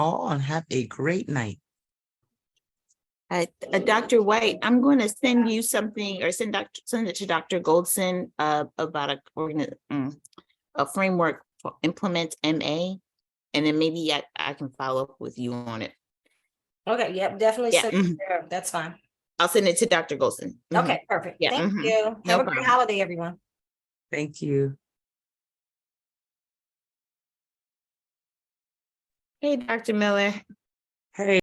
all and have a great night. Uh, uh, Dr. White, I'm going to send you something or send Dr., send it to Dr. Goldson, uh, about a, organi- mm, a framework for implement MA. And then maybe I, I can follow up with you on it. Okay, yep, definitely. Yeah, send mhm. it there. That's fine. I'll send it to Dr. Goldson. Mhm. Okay, perfect. Yeah, Thank mhm. you. No Have a great problem. holiday, everyone. Thank you. Hey, Dr. Miller. Hey.